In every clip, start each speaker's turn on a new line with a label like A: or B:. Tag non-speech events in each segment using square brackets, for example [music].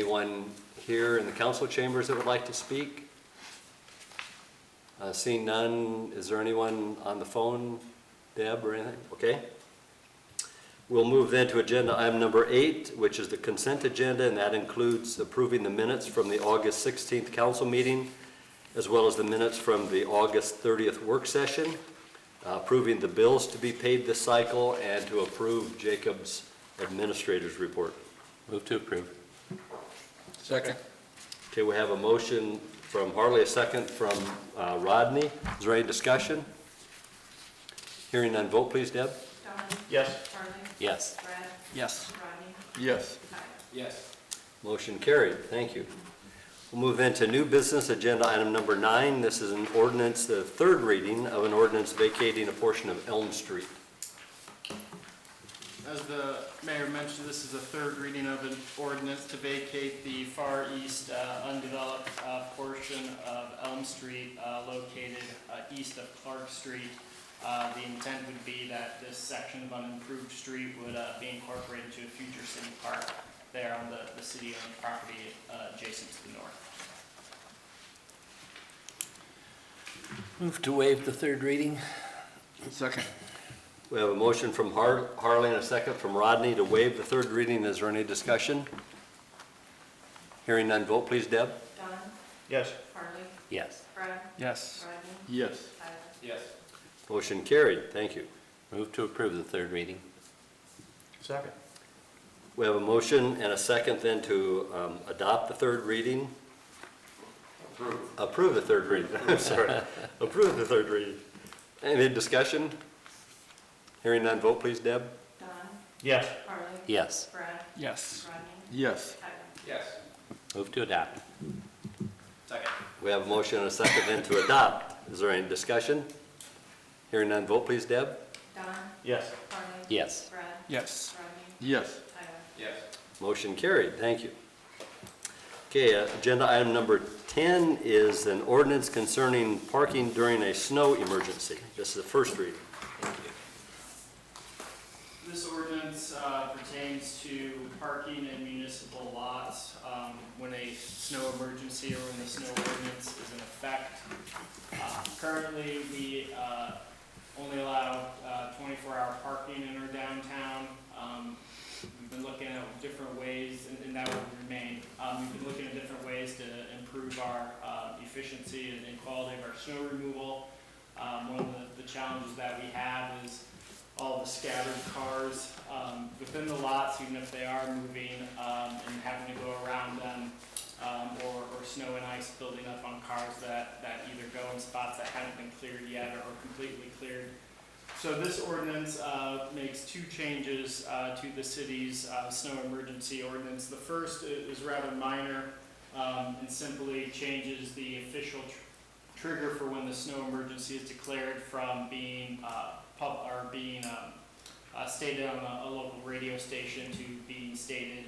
A: Anyone here in the council chambers that would like to speak? Uh, Seeing none, is there anyone on the phone, Deb, or anything? Okay. We'll move then to agenda item number eight, which is the consent agenda, and that includes approving the minutes from the August 16th council meeting, as well as the minutes from the August 30th work session, uh, approving the bills to be paid this cycle, and to approve Jacob's administrator's report.
B: Move to approve.
C: Second.
A: Okay, we have a motion from Harley, a second from uh, Rodney. Is there any discussion? Hearing none, vote please, Deb.
D: Don?
C: Yes.
D: Harley?
B: Yes.
D: Brad?
C: Yes.
D: Rodney?
C: Yes.
D: Tyler?
A: Motion carried, thank you. We'll move into new business, agenda item number nine. This is an ordinance, the third reading of an ordinance vacating a portion of Elm Street.
E: As the mayor mentioned, this is a third reading of an ordinance to vacate the far east uh, undeveloped uh, portion of Elm Street uh, located uh, east of Clark Street. Uh, The intent would be that this section of unimproved street would uh, be incorporated into a future city park there on the- the city-owned property uh, adjacent to the north.
B: Move to waive the third reading?
C: Second.
A: We have a motion from Har- Harley and a second from Rodney to waive the third reading. Is there any discussion? Hearing none, vote please, Deb.
D: Don?
C: Yes.
D: Harley?
B: Yes.
D: Brad?
C: Yes.
D: Rodney?
C: Yes.
D: Tyler?
E: Yes.
A: Motion carried, thank you.
B: Move to approve the third reading?
C: Second.
A: We have a motion and a second then to um, adopt the third reading. Approve. the third reading, [laughs] I'm sorry. Approve the third reading. Any discussion? Hearing none, vote please, Deb.
D: Don?
C: Yes.
D: Harley?
B: Yes.
D: Brad?
C: Yes.
D: Rodney?
C: Yes.
D: Tyler?
B: Move to adopt?
E: Second.
A: We have a motion and a second then to adopt. Is there any discussion? Hearing none, vote please, Deb.
D: Don?
C: Yes.
D: Harley?
B: Yes.
D: Brad?
C: Yes.
D: Rodney?
C: Yes.
D: Tyler?
E: Yes.
A: Motion carried, thank you. Okay, uh, agenda item number 10 is an ordinance concerning parking during a snow emergency. This is the first reading.
E: This ordinance uh, pertains to parking in municipal lots um, when a snow emergency or when the snow ordinance is in effect. Uh, Currently, we uh, only allow uh, twenty-four hour parking in our downtown. Um, We've been looking at different ways, and- and that will remain. Um, We've been looking at different ways to improve our uh, efficiency and- and quality of our snow removal. Um, One of the- the challenges that we have is all the scattered cars um, within the lots, even if they are moving um, and having to go around them, um, or, or snow and ice building up on cars that, that either go in spots that haven't been cleared yet or completely cleared. So this ordinance uh, makes two changes uh, to the city's uh, snow emergency ordinance. The first i- is rather minor um, and simply changes the official tr- trigger for when the snow emergency is declared from being uh, pub, or being um, uh, stated on a, a local radio station to being stated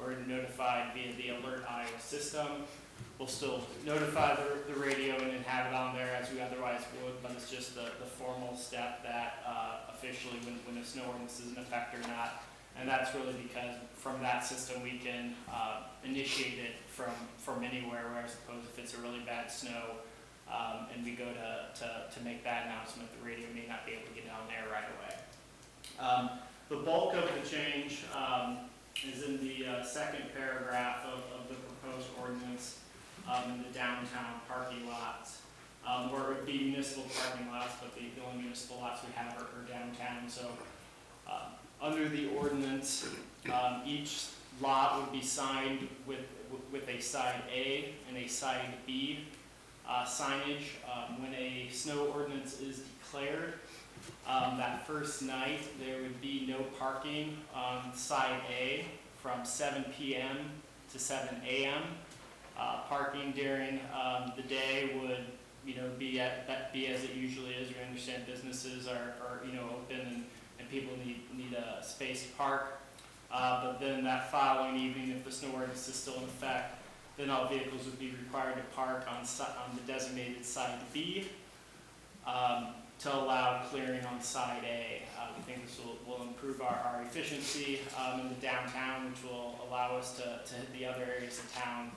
E: or notified via the Alert Iowa system. We'll still notify the, the radio and then have it on there as we otherwise would, but it's just the, the formal step that uh, officially when, when a snow ordinance is in effect or not. And that's really because from that system, we can uh, initiate it from, from anywhere, where I suppose if it's a really bad snow, um, and we go to, to, to make that announcement, the radio may not be able to get down there right away. Um, the bulk of the change, um, is in the, uh, second paragraph of, of the proposed ordinance, um, in the downtown parking lots. Um, where it would be municipal parking lots, but the, the only municipal lots we have are, are downtown, so, uh, under the ordinance, um, each lot would be signed with, with a side A and a side B uh, signage. Um, When a snow ordinance is declared, um, that first night, there would be no parking on side A from 7 PM to 7 AM. Uh, Parking during um, the day would, you know, be at, that- be as it usually is. We understand businesses are, are, you know, open and, and people need, need a space to park. Uh, But then that following evening, if the snow ordinance is still in effect, then all vehicles would be required to park on si, on the designated side B. Um, to allow clearing on side A. Uh, We think this will, will improve our, our efficiency um, in the downtown, which will allow us to, to hit the other areas of town